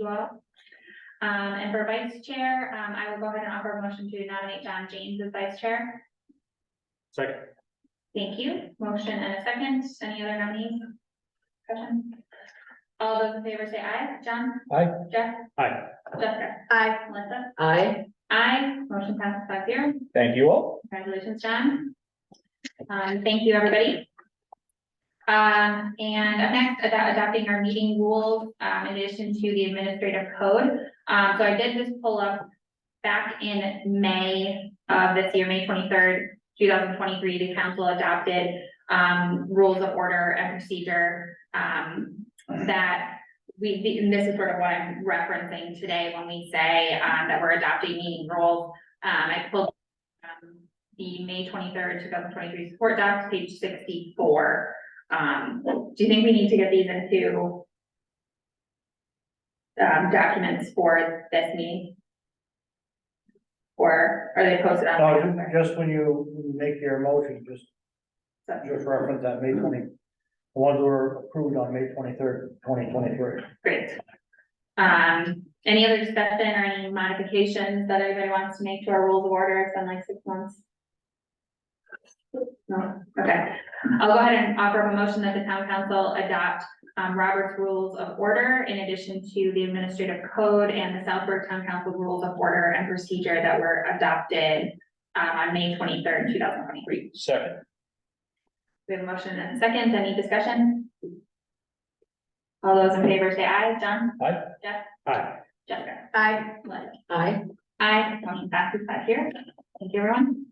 well. Um, and for vice chair, um, I will go ahead and offer a motion to nominate John James as vice chair. Second, Thank you. Motion and a second. Any other nominees? Discussion? All those in favor say aye. John? Aye. Jeff? aye, Jessica? Aye. Melissa? I, Aye. Motion passes five zero. Thank you all. Congratulations, John. Um, thank you, everybody. Um, and up next, about adopting our meeting rules, um, in addition to the administrative code. Um, so I did just pull up back in May of this year, May twenty-third, two thousand twenty-three, the council adopted, um, rules of order and procedure, um, that we, the- and this is sort of what I'm referencing today when we say, um, that we're adopting meeting rules. Um, I pulled um, the May twenty-third, two thousand twenty-three support docs, page sixty-four. Um, do you think we need to get these into um, documents for this meeting? Or are they posted on? Now, ju- just when you make your motion, just, So- just reference that May twenty, the ones that were approved on May twenty-third, twenty twenty-three. Great. Um, any other discussion or any modifications that anybody wants to make to our rules of order? It's been like six months. No, okay. I'll go ahead and offer up a motion that the town council adopt, um, Robert's Rules of Order in addition to the administrative code and the Southburg Town Council Rules of Order and Procedure that were adopted, um, on May twenty-third, two thousand twenty-three. Second. We have a motion and a second. Any discussion? All those in favor say aye. John? aye. Jessica. Aye. Liz. I, Aye, motion passes five here. Thank you, everyone.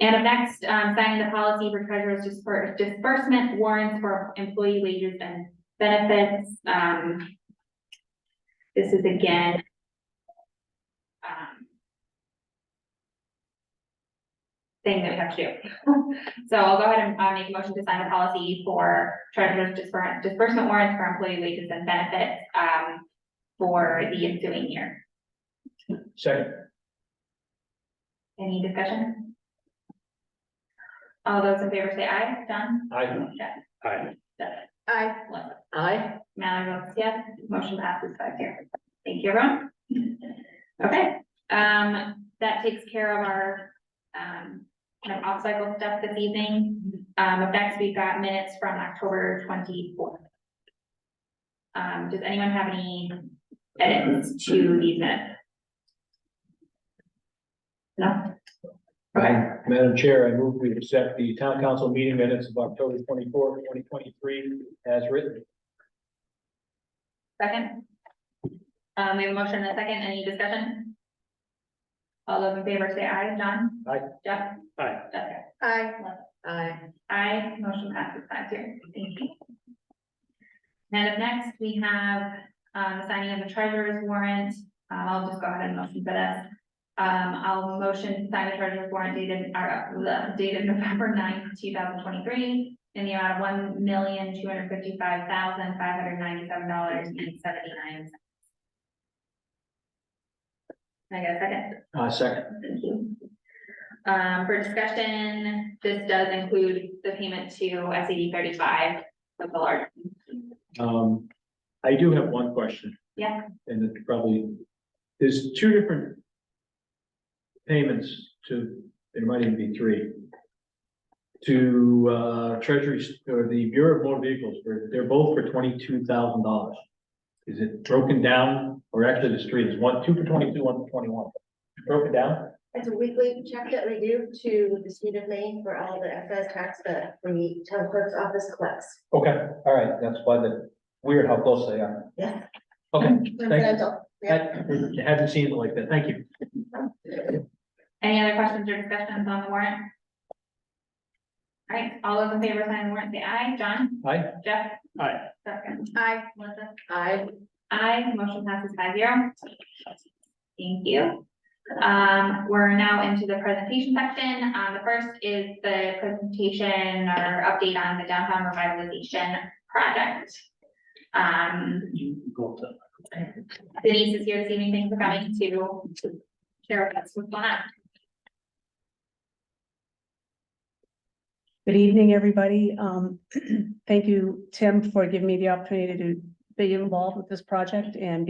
And up next, um, signing the policy for treasurer's disper- disbursement warrants for employee wages and benefits, um. This is again. um, Thing that we have to do. So I'll go ahead and, uh, make a motion to sign the policy for treasurer's disper- disbursement warrants for employee wages and benefits, um. For the ensuing year. Second. Any discussion? All those in favor say aye. John? Aye. Jeff? Aye. Aye. I, Mallory votes yes, motion passes five zero. Thank you, everyone. Okay, um, that takes care of our, um, kind of off-cycle stuff this evening. Um, up next, we've got minutes from October twenty-fourth. Um, does anyone have any edits to these minutes? No? Okay. Madam Chair, I move we accept the town council meeting minutes of October twenty-fourth, twenty twenty-three as written. Second. Um, we have a motion and a second. Any discussion? All those in favor say aye. John? Aye. Jeff? Aye. Jessica? Aye. I, Aye, motion passes five zero. Thank you. And up next, we have, um, signing of the treasurer's warrant. Um, I'll just go ahead and motion for this. Um, I'll motion to sign the treasurer's warrant dated, or, uh, the date of November 9th, two thousand twenty-three in the amount of one million, two hundred fifty-five thousand, five hundred ninety-seven dollars and seventy-nine cents. Can I get a second? Uh, second. Thank you. Um, for discussion, this does include the payment to SED thirty-five of the large. Um, I do have one question. Yeah. And it's probably, there's two different payments to, there might even be three. To, uh, Treasury, or the Bureau of Motor Vehicles, where they're both for twenty-two thousand dollars. Is it broken down, or actually the street is one, two for twenty-two, one for twenty-one? Broken down? It's a weekly check that we do to the state of Maine for all the excise tax that the town clerk's office collects. Okay, all right, that's why the, weird how close they are. Yeah. Okay, Coincidental. Yeah. I hadn't seen it like that, thank you. Any other questions or discussions on the warrant? All right, all those in favor signing the warrant, say aye. John? Aye. Jeff? Aye. Jessica? Aye. Melissa? I, Aye, motion passes five zero. Thank you. Um, we're now into the presentation section. Um, the first is the presentation or update on the downtown revitalization project. Um, You go up to- Denise is here this evening. Thanks for coming to share with us what's going on. Good evening, everybody. Um, thank you, Tim, for giving me the opportunity to be involved with this project and